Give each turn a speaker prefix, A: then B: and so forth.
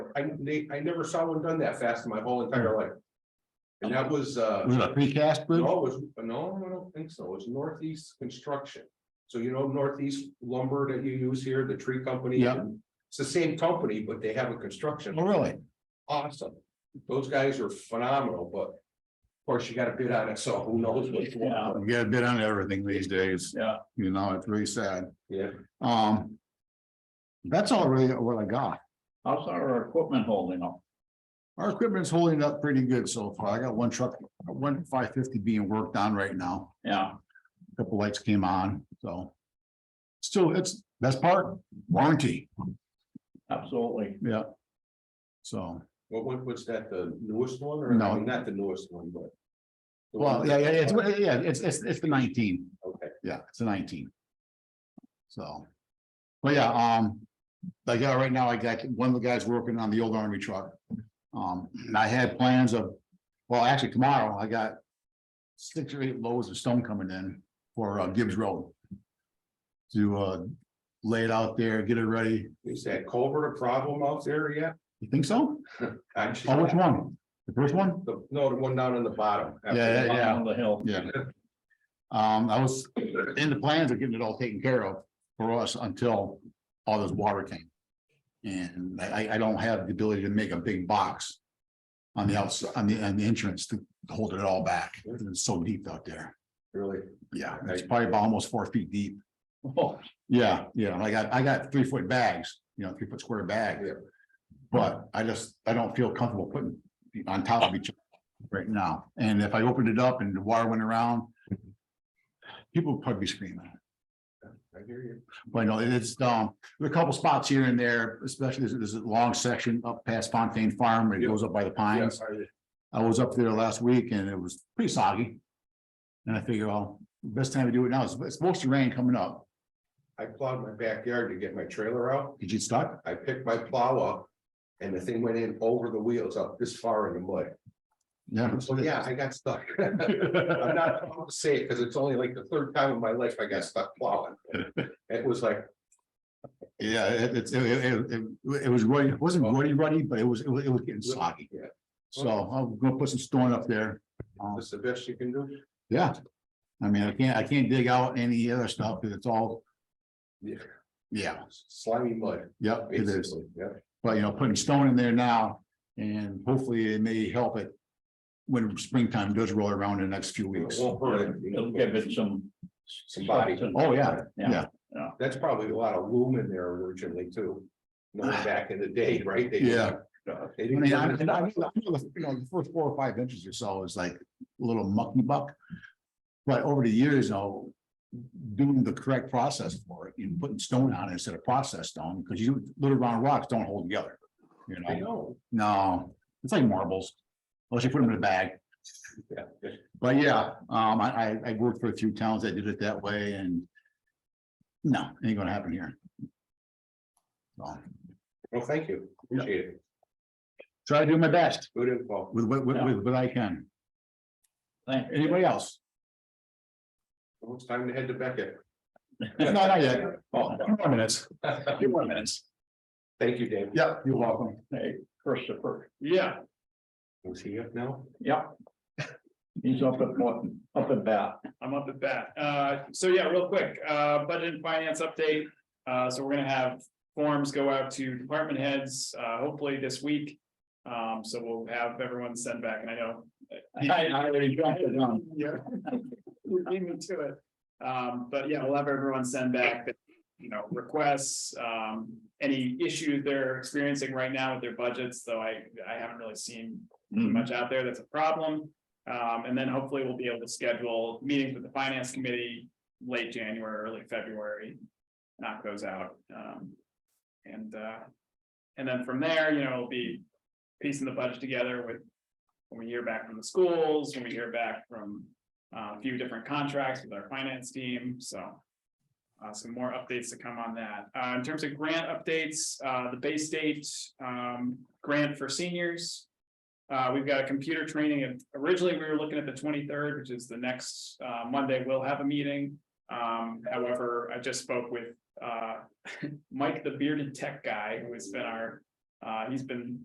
A: I, they, I never saw one done that fast in my whole entire life. And that was, uh.
B: Was it a precast bridge?
A: No, it was, no, I don't think so. It's Northeast Construction. So you know Northeast Lumber that you use here, the tree company?
B: Yeah.
A: It's the same company, but they have a construction.
B: Oh, really?
A: Awesome. Those guys are phenomenal, but of course you gotta bid on it, so who knows what's going
B: Yeah,
A: on.
B: you get a bid on everything these days.
C: Yeah.
B: You know, it's really sad.
A: Yeah,
B: Um. That's all really what I got.
C: How's our equipment holding up?
B: Our equipment's holding up pretty good so far. I got one truck, one five fifty being worked on right now.
C: Yeah,
B: A Couple lights came on, so. Still, it's, that's part warranty,
C: absolutely.
B: yeah. So,
A: what, what, what's that, the newest one or?
B: No.
A: I mean, Not the newest one, but. the
B: well,
A: one-
B: yeah, yeah, it's, yeah, it's, it's, it's the nineteen.
A: Okay,
B: Yeah, it's a nineteen. So. But yeah, um, like, yeah, right now, I got, one of the guys working on the old army truck. Um, and I had plans of, well, actually tomorrow, I got. Six or eight loads of stone coming in for uh, Gibbs Road. To uh, lay it out there, get it ready.
A: is that culvert a problem out there yet?
B: You think so?
A: Actually,
B: Oh, which one? The first one?
A: the, no, the one down on the bottom.
B: Yeah, yeah, yeah.
C: On the hill.
B: Yeah. Um, I was in the plans of getting it all taken care of for us until all this water came. And I, I- I don't have the ability to make a big box on the outside, on the, on the entrance to hold it all back. It's so deep out there.
A: Really?
B: Yeah, it's probably about almost four feet deep.
C: Oh,
B: Yeah, yeah, I got, I got three foot bags, you know, three foot square bag.
A: Yeah.
B: But I just, I don't feel comfortable putting it on top of each other right now. And if I opened it up and the water went around, people would probably be screaming.
A: I hear you.
B: But no, it's, um, there are a couple spots here and there, especially there's, there's a long section up past Fontaine Farm where it
A: Yeah.
B: goes up by the
A: Yeah,
B: pines.
A: I-
B: I was up there last week and it was pretty soggy. And I figure, well, best time to do it now, is it's supposed to rain coming up.
A: I plowed my backyard to get my trailer out.
B: Did you start?
A: I picked my plow up and the thing went in over the wheels up this far in the mud.
B: Yeah.
A: So yeah, I got stuck. I'm not proud to say it because it's only like the third time in my life I got stuck plowing. It was like,
B: Yeah, it, it's- it, it, it, it was ruddy, it wasn't ruddy, ruddy, but it was, it was, it was getting soggy.
A: Yeah.
B: So I'm gonna put some stone up there. Um,
A: this is the best you can do.
B: Yeah. I mean, I can't, I can't dig out any other stuff, 'cause it's all.
A: Yeah.
B: Yeah,
A: Slimy mud,
B: yep, it is.
A: basically. Yeah,
B: But, you know, putting stone in there now and hopefully it may help it. When springtime does roll around in the next few
A: it
B: weeks.
A: won't hurt it.
C: it'll give it some.
A: Some body.
C: substance.
B: Oh, yeah, yeah.
A: That's probably a lot of loom in there originally too. You know, back in the day, right? They-
B: Yeah.
A: They
B: I
A: didn't
B: mean, I, and I, I know the, you know, the first four or five inches or so is like a little mucky buck. But over the years, you know, doing the correct process for it, you know, putting stone on it instead of processed stone, because you, little round rocks don't hold together. You
A: I
B: know,
A: know.
B: no, it's like marbles, unless you put them in a bag.
A: Yeah.
B: But yeah, um, I, I, I worked for a few towns that did it that way and no, ain't gonna happen here. So,
A: Well, thank you. Appreciate it.
B: try to do my best
A: Good info.
B: with, what- with, with what I can.
C: Thank you.
B: Anybody else?
A: Well, It's time to head to Beckett.
B: No, not yet.
C: Oh,
B: Few more minutes, few more minutes.
A: Thank you, David.
B: Yeah, you're welcome.
C: hey, Christopher. Yeah.
A: Is he up now?
C: Yep. He's up at Morton, up at bat.
D: I'm up at bat. Uh, so yeah, real quick, uh, budget and finance update. Uh, so we're gonna have forms go out to department heads, uh, hopefully this week. Um, so we'll have everyone send back and I know.
C: I I already dropped it on.
D: Yeah. You beat me to it. Um, but yeah, we'll have everyone send back, the, you know, requests, um, any issues they're experiencing right now with their budgets, though I, I haven't really seen
B: Mm. Mm-hmm.
D: much out there that's a problem. Um, and then hopefully we'll be able to schedule meetings with the finance committee late January, early February. Knock those out, um, and, uh, and then from there, you know, it'll be piecing the budget together with. When we hear back from the schools, when we hear back from, uh, a few different contracts with our finance team, so. Uh, some more updates to come on that. Uh, in terms of grant updates, uh, the Bay State, um, grant for seniors. Uh, we've got a computer training and originally we were looking at the twenty-third, which is the next, uh, Monday, we'll have a meeting. Um, however, I just spoke with, uh, Mike, the bearded tech guy who has been our, uh, he's been